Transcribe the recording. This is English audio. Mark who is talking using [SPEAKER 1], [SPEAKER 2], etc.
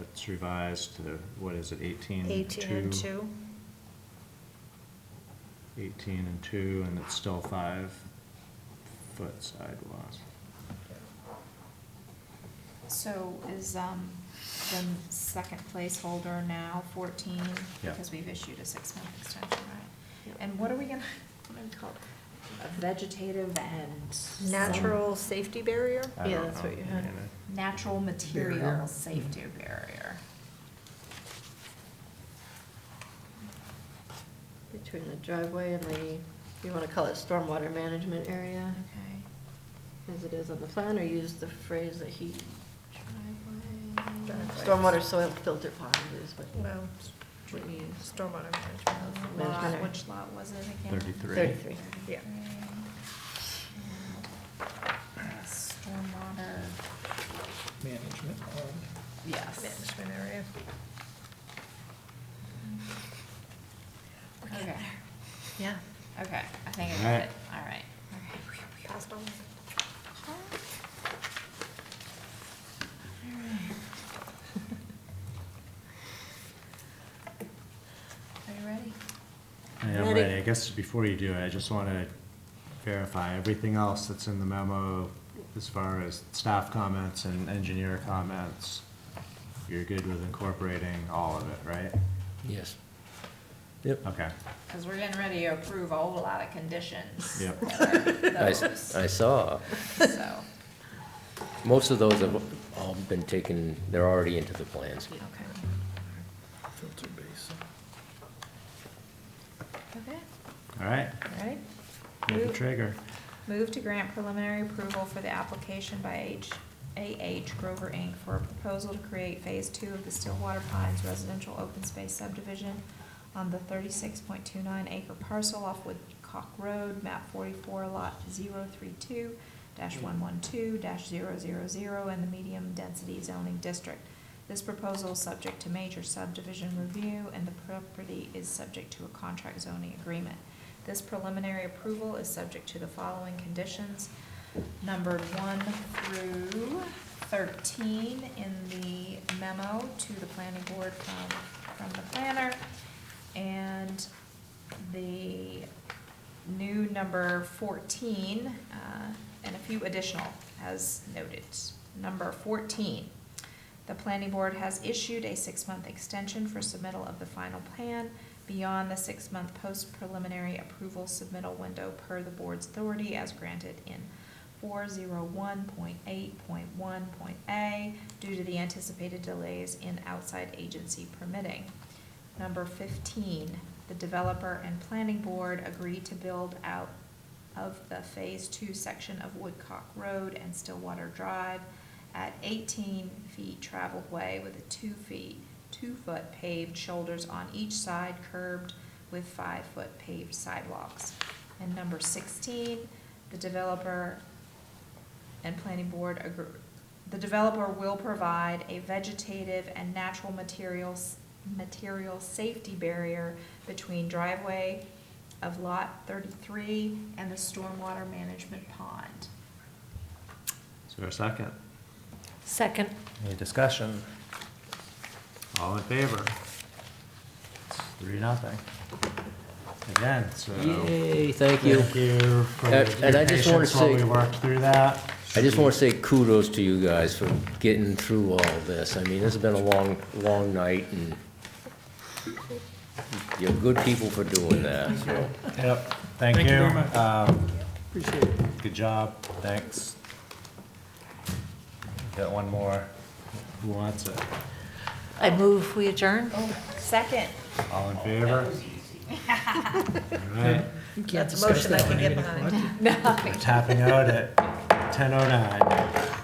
[SPEAKER 1] It's revised to, what is it, eighteen?
[SPEAKER 2] 18 and 2.
[SPEAKER 1] Eighteen and two, and it's still five foot sidewalks.
[SPEAKER 3] So is, um, the second placeholder now fourteen?
[SPEAKER 1] Yeah.
[SPEAKER 3] Because we've issued a six-month extension, right?
[SPEAKER 2] Yep.
[SPEAKER 3] And what are we gonna, what do we call it? A Vegetative and.
[SPEAKER 2] Natural safety barrier?
[SPEAKER 1] I
[SPEAKER 4] Yeah,
[SPEAKER 1] don't
[SPEAKER 4] that's
[SPEAKER 1] know.
[SPEAKER 4] what you had.
[SPEAKER 1] I mean, I-
[SPEAKER 3] Natural material
[SPEAKER 4] Barrier.
[SPEAKER 3] safety barrier.
[SPEAKER 4] Between the driveway and the, you wanna call it stormwater management area,
[SPEAKER 3] Okay.
[SPEAKER 4] as it is on the plan, or use the phrase that he,
[SPEAKER 3] Driveway.
[SPEAKER 2] Driveway.
[SPEAKER 4] stormwater soil filter pond is what
[SPEAKER 2] Well,
[SPEAKER 4] we use.
[SPEAKER 2] stormwater management.
[SPEAKER 3] Lot,
[SPEAKER 4] Management.
[SPEAKER 3] which lot was it again?
[SPEAKER 1] Thirty-three.
[SPEAKER 4] Thirty-three.
[SPEAKER 2] Yeah.
[SPEAKER 3] And Stormwater,
[SPEAKER 5] management.
[SPEAKER 3] yes.
[SPEAKER 2] Management area.
[SPEAKER 3] Okay,
[SPEAKER 4] Yeah.
[SPEAKER 3] okay, I think I
[SPEAKER 1] All
[SPEAKER 3] got
[SPEAKER 1] right.
[SPEAKER 3] it, all right.
[SPEAKER 2] Passed on.
[SPEAKER 3] Are you ready?
[SPEAKER 1] I am
[SPEAKER 2] Ready.
[SPEAKER 1] ready. I guess before you do it, I just want to verify everything else that's in the memo as far as staff comments and engineer comments. You're good with incorporating all of it, right?
[SPEAKER 6] Yes. Yep.
[SPEAKER 1] Okay,
[SPEAKER 3] Because we're getting ready to approve a whole lot of conditions.
[SPEAKER 1] Yep.
[SPEAKER 6] I,
[SPEAKER 3] That
[SPEAKER 6] s-
[SPEAKER 3] are those,
[SPEAKER 6] I saw,
[SPEAKER 3] so,
[SPEAKER 6] most of those have all been taken, they're already into the plans.
[SPEAKER 3] okay.
[SPEAKER 5] Filter basin.
[SPEAKER 3] Okay,
[SPEAKER 1] all right,
[SPEAKER 3] all right.
[SPEAKER 1] move the
[SPEAKER 3] Move-
[SPEAKER 1] trigger.
[SPEAKER 3] Move to grant preliminary approval for the application by H, AH Grover Inc. for a proposal to create Phase Two of the Stillwater Pines Residential Open Space Subdivision on the thirty-six point two-nine acre parcel off Woodcock Road, map forty-four, lot 032 one-one-two 0 in the medium-density zoning district. This proposal is subject to major subdivision review, and the property is subject to a contract zoning agreement. This preliminary approval is subject to the following conditions, numbered one through thirteen in the memo to the planning board from, from the planner. And the new number fourteen, uh, and a few additional as noted. Number fourteen, the planning board has issued a six-month extension for submittal of the final plan beyond the six-month post-preliminary approval submittal window per the board's authority as granted in four zero one point eight point one point A due to the anticipated delays in outside agency permitting. Number fifteen, the developer and planning board agreed to build out of the Phase Two section of Woodcock Road and Stillwater Drive at eighteen feet traveled way with a two feet, two-foot paved shoulders on each side curbed with five-foot paved sidewalks. And number sixteen, the developer and planning board agree, the developer will provide a vegetative and natural materials, material safety barrier between driveway of lot thirty-three and the stormwater management pond.
[SPEAKER 1] Is there a second?
[SPEAKER 4] Second.
[SPEAKER 1] Any discussion? All in favor? It's Three, nothing. Again, so.
[SPEAKER 6] Yay, thank you.
[SPEAKER 1] Thank you for
[SPEAKER 6] And- and
[SPEAKER 1] your
[SPEAKER 6] I just wanna
[SPEAKER 1] patience while
[SPEAKER 6] say-
[SPEAKER 1] we worked through that.
[SPEAKER 6] I just want to say kudos to you guys for getting through all this. I mean, this has been a long, long night, and you're good people for doing that, so.
[SPEAKER 1] Yep, thank you.
[SPEAKER 5] Thank you very much.
[SPEAKER 1] Um,
[SPEAKER 5] Appreciate it.
[SPEAKER 1] Good job, thanks. Got one more. Who wants it?
[SPEAKER 4] I move, we adjourn?
[SPEAKER 3] Second.
[SPEAKER 1] All in favor? All right,
[SPEAKER 2] That's a motion I can get behind.
[SPEAKER 1] we're tapping out at ten oh nine.